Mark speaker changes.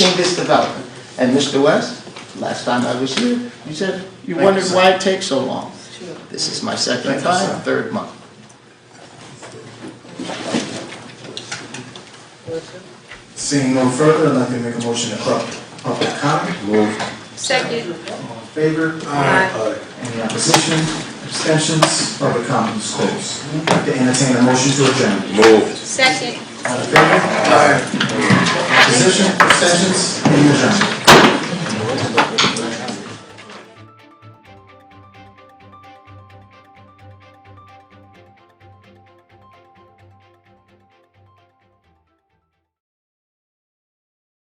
Speaker 1: in this development. And Mr. West, last time I was here, you said you wondered why it takes so long. This is my second
Speaker 2: Thank you, sir.
Speaker 1: time, third month.
Speaker 2: Seeing no further, I'd like to make a motion to public, public comment.
Speaker 3: Second.
Speaker 2: All in favor?
Speaker 3: Aye.
Speaker 2: Any opposition, abstentions, public comment is closed. I'd like to entertain a motion to adjourn.
Speaker 4: Moved.
Speaker 3: Second.
Speaker 2: All in favor? Aye. Opposition, abstentions, any adjournment?